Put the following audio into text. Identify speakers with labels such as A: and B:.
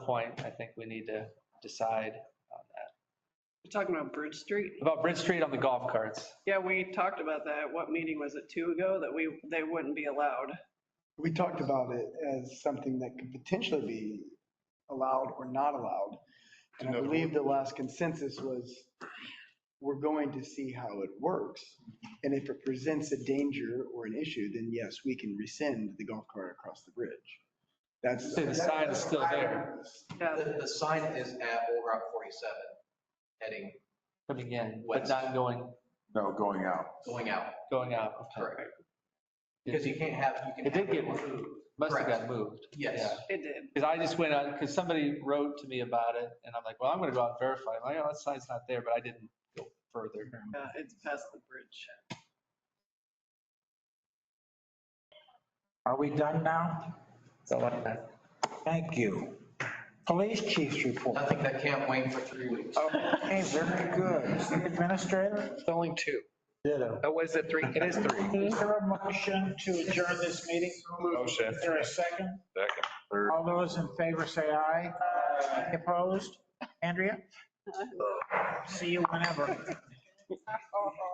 A: point, I think we need to decide on that.
B: You're talking about Bridge Street?
A: About Bridge Street on the golf carts.
B: Yeah, we talked about that. What meeting was it, two ago, that we, they wouldn't be allowed?
C: We talked about it as something that could potentially be allowed or not allowed. And I believe the last consensus was, we're going to see how it works. And if it presents a danger or an issue, then yes, we can rescind the golf cart across the bridge. That's.
A: See, the sign is still there.
B: Yeah,
D: The, the sign is at Old Route 47, heading,
A: Coming in, but not going,
E: No, going out.
D: going out,
A: going out.
D: correct? Because you can't have, you can.
A: It did
D: have-
A: get moved. Must have got moved.
D: Yes.
B: it did.
A: Because I just went on, because somebody wrote to me about it and I'm like, well, I'm going to go out and verify. I'm like, oh, that sign's not there, but I didn't go further.
B: Yeah, it's past the bridge.
F: Are we done now?
A: So like that.
F: Thank you. Police chief's report.
D: Nothing that can't wait for three weeks.
F: Okay, very good. City administrator?
G: It's only two.
F: Ditto.
G: Oh, is it three? It is three.
F: Is there a motion to adjourn this meeting?
E: Motion.
F: Is there a second?
E: Second, third.
F: All those in favor say aye. Any Opposed? Andrea? See you whenever.